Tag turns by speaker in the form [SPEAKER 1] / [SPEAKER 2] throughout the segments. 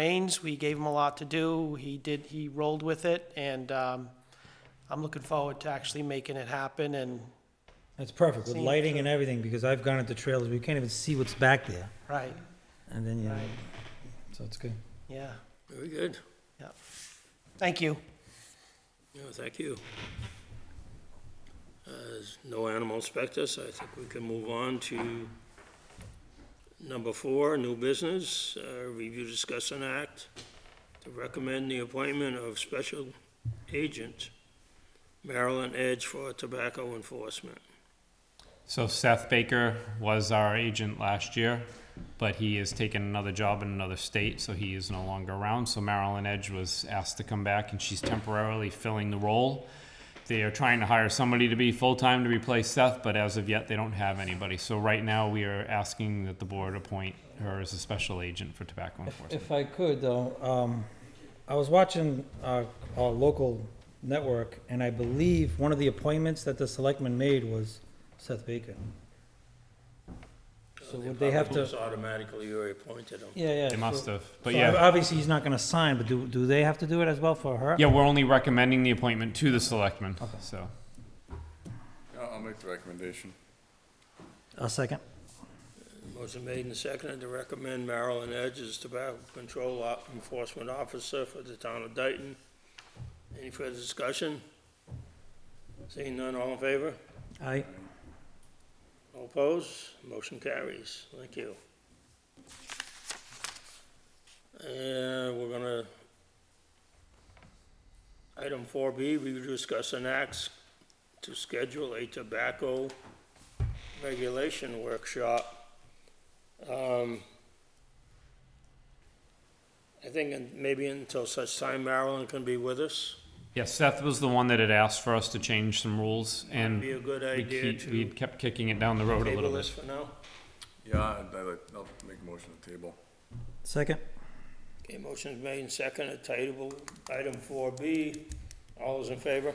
[SPEAKER 1] reins. We gave him a lot to do. He did, he rolled with it, and um, I'm looking forward to actually making it happen, and,
[SPEAKER 2] That's perfect, with
[SPEAKER 1] Same
[SPEAKER 2] lighting and everything, because I've gone into trailers, we can't even see what's back there,
[SPEAKER 1] right,
[SPEAKER 2] and then, yeah,
[SPEAKER 1] Right.
[SPEAKER 2] so it's good.
[SPEAKER 1] yeah.
[SPEAKER 3] Very good.
[SPEAKER 1] Thank you.
[SPEAKER 3] No, thank you. Uh, There's no animal inspectors. I think we can move on to number four, new business, uh, review, discuss, and act to recommend the appointment of special agent Maryland Edge for tobacco enforcement.
[SPEAKER 4] So Seth Baker was our agent last year, but he has taken another job in another state, so he is no longer around. So Marilyn Edge was asked to come back, and she's temporarily filling the role. They are trying to hire somebody to be full-time to replace Seth, but as of yet, they don't have anybody. So right now, we are asking that the board appoint her as a special agent for tobacco enforcement.
[SPEAKER 2] If I could, though, um, I was watching our, our local network, and I believe one of the appointments that the selectman made was Seth Baker. So would they have
[SPEAKER 3] Probably just
[SPEAKER 2] to,
[SPEAKER 3] Automatically reappointed him.
[SPEAKER 2] yeah, yeah.
[SPEAKER 4] They must have, but
[SPEAKER 2] so
[SPEAKER 4] yeah.
[SPEAKER 2] Obviously, he's not gonna sign, but do, do they have to do it as well for her?
[SPEAKER 4] Yeah, we're only recommending the appointment to the selectmen, so.
[SPEAKER 5] I'll I'll make the recommendation.
[SPEAKER 2] A second.
[SPEAKER 3] Motion made and seconded to recommend Marilyn Edge as tobacco control Op- enforcement officer for the town of Dayton. Any further discussion? Seeing none, all in favor?
[SPEAKER 2] Aye.
[SPEAKER 3] All opposed? Motion carries. Thank you. And we're gonna, item four B, we discuss an act to schedule a tobacco regulation workshop. Um, I think in- maybe until such time Marilyn can be with us.
[SPEAKER 4] Yeah, Seth was the one that had asked for us to change some rules, and
[SPEAKER 3] Be a good
[SPEAKER 4] we
[SPEAKER 3] idea
[SPEAKER 4] keep, we
[SPEAKER 3] to
[SPEAKER 4] kept kicking it down the road a
[SPEAKER 3] table
[SPEAKER 4] little
[SPEAKER 3] this
[SPEAKER 4] bit.
[SPEAKER 3] for now.
[SPEAKER 5] Yeah, I'd- I'd like- I'll make a motion to table.
[SPEAKER 2] Second.
[SPEAKER 3] Okay, motion is made and seconded, table item four B. All those in favor?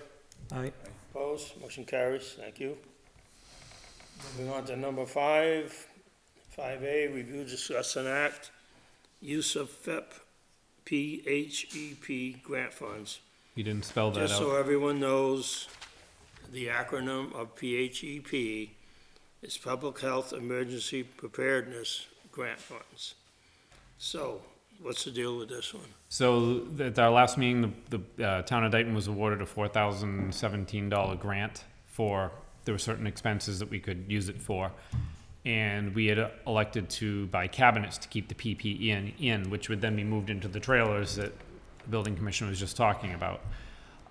[SPEAKER 2] Aye.
[SPEAKER 3] Opposed? Motion carries. Thank you. Moving on to number five, five A, review, discuss, and act, use of E FEP, PHEP E grant funds.
[SPEAKER 4] You didn't spell that
[SPEAKER 3] Just so
[SPEAKER 4] out.
[SPEAKER 3] everyone knows, the acronym of PHEP is Public Health Emergency Preparedness Grant Funds. So, what's the deal with this one?
[SPEAKER 4] So th- at our last meeting, the, the uh, town of Dayton was awarded a four thousand seventeen dollar grant for, there were certain expenses that we could use it for. And we had uh, elected to buy cabinets to keep the PP in, in, which would then be moved into the trailers that the building commissioner was just talking about.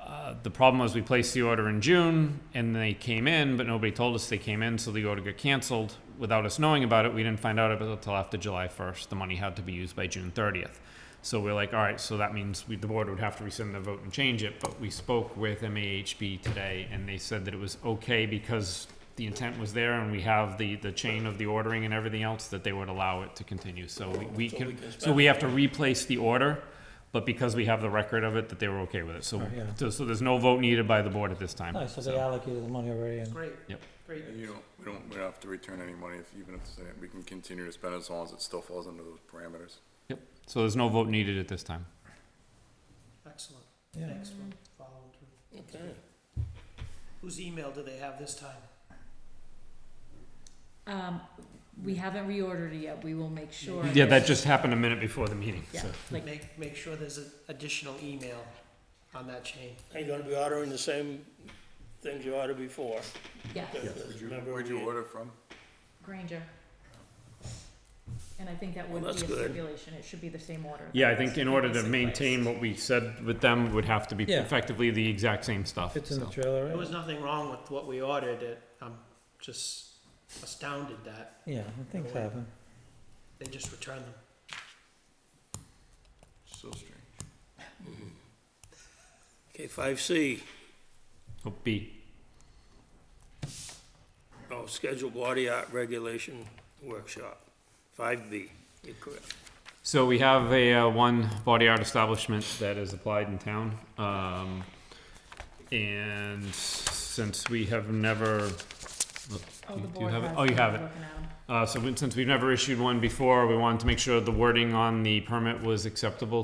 [SPEAKER 4] Uh, the problem was we placed the order in June and they came in, but nobody told us they came in, so the order got canceled without us knowing about it. We didn't find out about it until after July 1st. The money had to be used by June 30th. So we're like, all right, so that means we, the board would have to rescind the vote and change it. But we spoke with MAHB today and they said that it was okay because the intent was there and we have the, the chain of the ordering and everything else that they would allow it to continue. So we, we
[SPEAKER 3] So we
[SPEAKER 4] can,
[SPEAKER 3] can
[SPEAKER 4] so we have to replace the order, but because we have the record of it, that they were okay with it. So
[SPEAKER 2] Oh, yeah.
[SPEAKER 4] so, so there's no vote needed by the board at this time.
[SPEAKER 2] Nice, so they allocated the money already, and
[SPEAKER 1] Great.
[SPEAKER 4] Yep.
[SPEAKER 1] Great.
[SPEAKER 5] And you don't, we don't, we don't have to return any money if, even if, it's in it. we can continue to spend as long as it still falls under those parameters.
[SPEAKER 4] Yep. So there's no vote needed at this time.
[SPEAKER 1] Excellent.
[SPEAKER 2] Yeah.
[SPEAKER 1] Thanks for following through.
[SPEAKER 3] Okay.
[SPEAKER 1] Whose email do they have this time?
[SPEAKER 6] Um, we haven't reordered it yet, we will make sure.
[SPEAKER 4] Yeah, that just happened a minute before the meeting.
[SPEAKER 6] Yeah,
[SPEAKER 4] so.
[SPEAKER 6] like,
[SPEAKER 1] Make, make sure there's an additional email on that chain.
[SPEAKER 3] Are you gonna be ordering the same things you ordered before?
[SPEAKER 6] yeah,
[SPEAKER 5] Where'd you,
[SPEAKER 3] Remember
[SPEAKER 5] where'd you
[SPEAKER 3] we-
[SPEAKER 5] order from?
[SPEAKER 6] Granger. And I think that
[SPEAKER 3] Well,
[SPEAKER 6] would be a
[SPEAKER 3] that's good.
[SPEAKER 6] stipulation, it should be the same order.
[SPEAKER 4] Yeah, I think in order to
[SPEAKER 6] Basically.
[SPEAKER 4] maintain what we said with them would have to be
[SPEAKER 2] Yeah.
[SPEAKER 4] effectively the exact same stuff.
[SPEAKER 2] fits in the
[SPEAKER 4] so.
[SPEAKER 2] trailer,
[SPEAKER 1] There
[SPEAKER 2] right?
[SPEAKER 1] was nothing wrong with what we ordered. It, I'm just astounded that
[SPEAKER 2] Yeah, things happen.
[SPEAKER 1] they just returned them.
[SPEAKER 5] So strange.
[SPEAKER 3] Okay, five C,
[SPEAKER 4] Oh, B.
[SPEAKER 3] oh, schedule body art regulation workshop, five B, you're correct.
[SPEAKER 4] So we have a uh, one body art establishment that is applied in town, um, and since we have never,
[SPEAKER 6] Oh,
[SPEAKER 4] You-
[SPEAKER 6] the
[SPEAKER 4] do you
[SPEAKER 6] board
[SPEAKER 4] have it?
[SPEAKER 6] has
[SPEAKER 4] Oh, you have it.
[SPEAKER 6] broken out.
[SPEAKER 4] Uh, so we- since we've never issued one before, we wanted to make sure the wording on the permit was acceptable